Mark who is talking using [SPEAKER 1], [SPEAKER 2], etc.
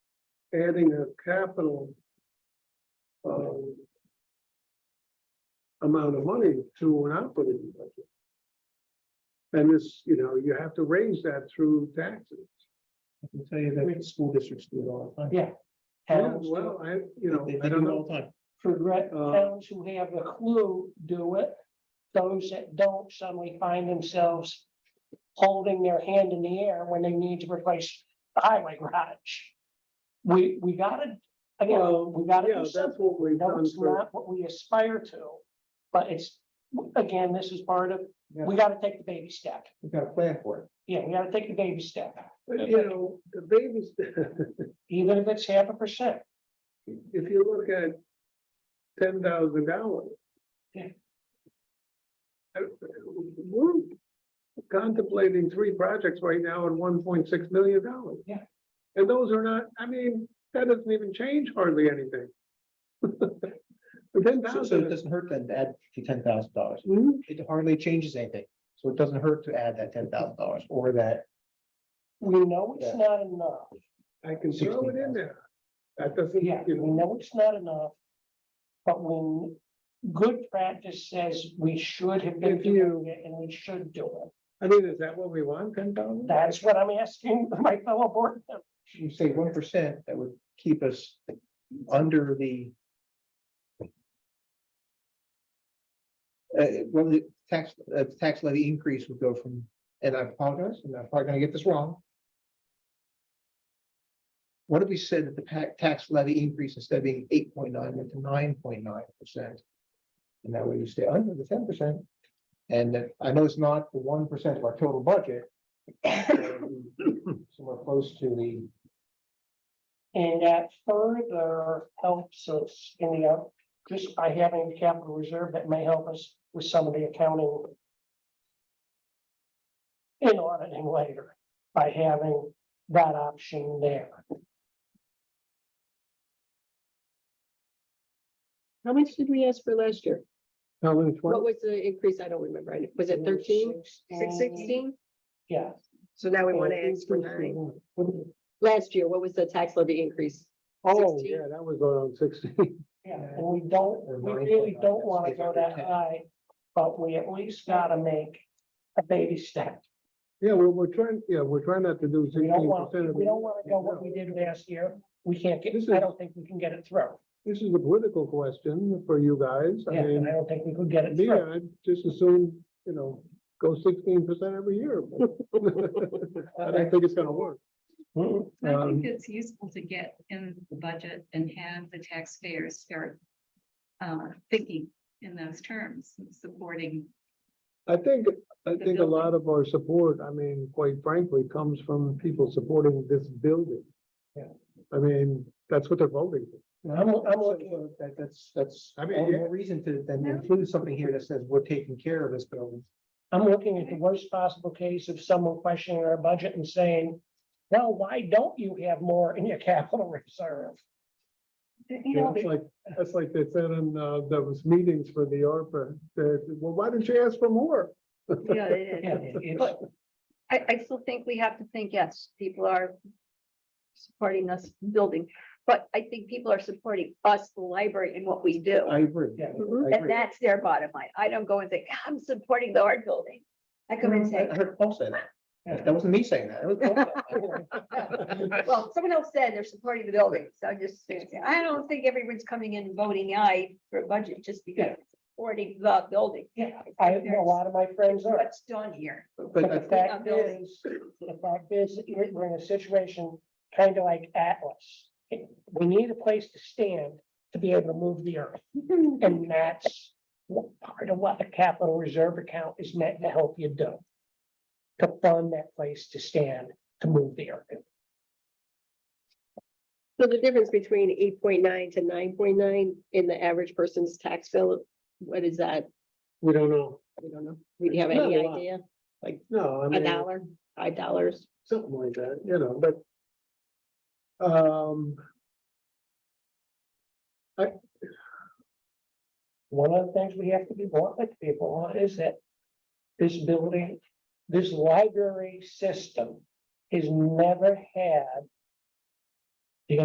[SPEAKER 1] adding a capital. um, Amount of money to an operating budget. And this, you know, you have to raise that through taxes.
[SPEAKER 2] I can tell you that school districts do it all the time.
[SPEAKER 3] Yeah.
[SPEAKER 1] Yeah,
[SPEAKER 3] Towns,
[SPEAKER 1] well, I, you
[SPEAKER 2] They-
[SPEAKER 1] know,
[SPEAKER 2] They
[SPEAKER 1] I
[SPEAKER 2] do
[SPEAKER 1] don't
[SPEAKER 2] it
[SPEAKER 1] know.
[SPEAKER 2] all the time.
[SPEAKER 3] progress,
[SPEAKER 1] Uh,
[SPEAKER 3] towns who have the clue do it. Those that don't suddenly find themselves holding their hand in the air when they need to replace the highway garage. We, we gotta, again, we gotta
[SPEAKER 1] Yeah,
[SPEAKER 3] do
[SPEAKER 1] that's
[SPEAKER 3] something.
[SPEAKER 1] what we've
[SPEAKER 3] No,
[SPEAKER 1] done
[SPEAKER 3] it's
[SPEAKER 1] for,
[SPEAKER 3] not what we aspire to, but it's, again, this is part of, we gotta take the baby step.
[SPEAKER 2] We've got a plan for it.
[SPEAKER 3] Yeah, we gotta take the baby step,
[SPEAKER 1] you know, the babies,
[SPEAKER 3] even if it's half a percent.
[SPEAKER 1] if you look at ten thousand dollars. Uh,
[SPEAKER 3] Yeah.
[SPEAKER 1] We're contemplating three projects right now at one point six million dollars.
[SPEAKER 3] Yeah.
[SPEAKER 1] And those are not, I mean, that doesn't even change hardly anything. Ten
[SPEAKER 2] So- So it
[SPEAKER 1] thousand.
[SPEAKER 2] doesn't hurt then to add to ten thousand dollars. It hardly changes anything. So it doesn't hurt to add that ten thousand dollars or that.
[SPEAKER 3] We know it's
[SPEAKER 2] Yeah.
[SPEAKER 3] not enough.
[SPEAKER 1] I can throw it in there. That doesn't,
[SPEAKER 3] Yeah,
[SPEAKER 1] you
[SPEAKER 3] we
[SPEAKER 1] know,
[SPEAKER 3] know it's not enough. But when good practice says we should have been
[SPEAKER 1] If you-
[SPEAKER 3] doing it and we should do it,
[SPEAKER 1] I mean, is that what we want, ten thousand?
[SPEAKER 3] that's what I'm asking my fellow board. members.
[SPEAKER 2] You say one percent, that would keep us under the. Uh, well, the tax, uh, tax levy increase would go from, and I apologize, and I'm probably gonna get this wrong. What if we said that the pa- tax levy increase instead of being eight point nine went to nine point nine percent? And that way you stay under the ten percent. And that- I know it's not the one percent of our total budget. Somewhere close to the.
[SPEAKER 3] And that further helps us in the, out- just by having a capital reserve, that may help us with some of the accounting. In auditing later, by having that option there.
[SPEAKER 4] How much did we ask for last year?
[SPEAKER 1] Thousand
[SPEAKER 4] What was the increase? I don't remember. I- Was it thirteen? Six sixteen?
[SPEAKER 3] Yeah.
[SPEAKER 4] Um, So now we want to ask for nine. Last year, what was the tax levy increase?
[SPEAKER 1] Oh,
[SPEAKER 4] 16?
[SPEAKER 1] yeah, that was around sixteen.
[SPEAKER 3] Yeah, and we don't,
[SPEAKER 2] Or
[SPEAKER 3] we
[SPEAKER 2] nine
[SPEAKER 3] really
[SPEAKER 2] point nine,
[SPEAKER 3] don't
[SPEAKER 2] that's
[SPEAKER 3] wanna
[SPEAKER 2] eight
[SPEAKER 3] go
[SPEAKER 2] hundred
[SPEAKER 3] that
[SPEAKER 2] ten.
[SPEAKER 3] high, but we at least gotta make a baby step.
[SPEAKER 1] Yeah, we're, we're trying, yeah, we're trying not to do
[SPEAKER 3] We
[SPEAKER 1] sixteen
[SPEAKER 3] don't want,
[SPEAKER 1] percent.
[SPEAKER 3] we don't wanna go what we did last year. We can't get,
[SPEAKER 1] This
[SPEAKER 3] I
[SPEAKER 1] is-
[SPEAKER 3] don't think we can get it through.
[SPEAKER 1] This is a political question for you guys. I
[SPEAKER 3] Yeah, and I
[SPEAKER 1] mean,
[SPEAKER 3] don't think we could get it
[SPEAKER 1] me, uh,
[SPEAKER 3] through.
[SPEAKER 1] I just assume, you know, go sixteen percent every year. I don't think it's gonna work.
[SPEAKER 3] Mm-mm.
[SPEAKER 5] I
[SPEAKER 1] Um,
[SPEAKER 5] think it's useful to get in the budget and have the taxpayers start uh, thinking in those terms, and supporting.
[SPEAKER 1] I think, I
[SPEAKER 5] The
[SPEAKER 1] think a lot of our support, I mean, quite frankly, comes from people supporting this building.
[SPEAKER 2] Yeah.
[SPEAKER 1] I mean, that's what they're voting for.
[SPEAKER 2] I'm, I'm looking, that, that's, uh, that's,
[SPEAKER 1] I
[SPEAKER 2] I
[SPEAKER 1] mean,
[SPEAKER 2] mean,
[SPEAKER 1] yeah.
[SPEAKER 2] more reason to then include something here that says we're taking care of this building.
[SPEAKER 3] I'm looking at the worst possible case of someone questioning our budget and saying, well, why don't you have more in your capital reserve?
[SPEAKER 5] You
[SPEAKER 1] Yeah,
[SPEAKER 5] know,
[SPEAKER 1] That's like, that's like they said in, uh, those meetings for the ARPA, they said, well, why didn't you ask for more?
[SPEAKER 5] yeah, it
[SPEAKER 3] Yeah,
[SPEAKER 5] is.
[SPEAKER 3] it- it's-
[SPEAKER 5] But I, I still think we have to think, yes, people are supporting us building, but I think people are supporting us, the library, and what we do.
[SPEAKER 2] I agree.
[SPEAKER 3] Yeah.
[SPEAKER 2] I
[SPEAKER 4] Mm-hmm.
[SPEAKER 5] And
[SPEAKER 2] agree.
[SPEAKER 5] that's their bottom line. I don't go and think, I'm supporting the art building. I come and say,
[SPEAKER 2] I heard Paul say that. That wasn't me saying that. It was Paul saying that.
[SPEAKER 5] Well, someone else said they're supporting the building, so I'm just, saying, I don't think everyone's coming in voting aye for a budget just because
[SPEAKER 3] Yeah.
[SPEAKER 5] it's supporting the building.
[SPEAKER 3] Yeah, I, a lot of my friends are.
[SPEAKER 5] What's done here?
[SPEAKER 2] But
[SPEAKER 3] But
[SPEAKER 2] I
[SPEAKER 3] the
[SPEAKER 2] think-
[SPEAKER 3] fact
[SPEAKER 5] Building.
[SPEAKER 3] is, the fact is, that you're- we're in a situation kind of like Atlas. We need a place to stand to be able to move the earth. And that's what- part of what a capital reserve account is meant to help you do. To fund that place to stand, to move the earth.
[SPEAKER 4] So the difference between eight point nine to nine point nine in the average person's tax bill, what is that?
[SPEAKER 1] We don't know.
[SPEAKER 4] We don't know. We have
[SPEAKER 1] It's not
[SPEAKER 4] any
[SPEAKER 1] a lot.
[SPEAKER 4] idea?
[SPEAKER 1] No, I
[SPEAKER 4] A
[SPEAKER 1] mean.
[SPEAKER 4] dollar, five dollars?
[SPEAKER 1] something like that, you know, but. Um,
[SPEAKER 3] One of the things we have to be blunt with people on is that this building, this library system has never had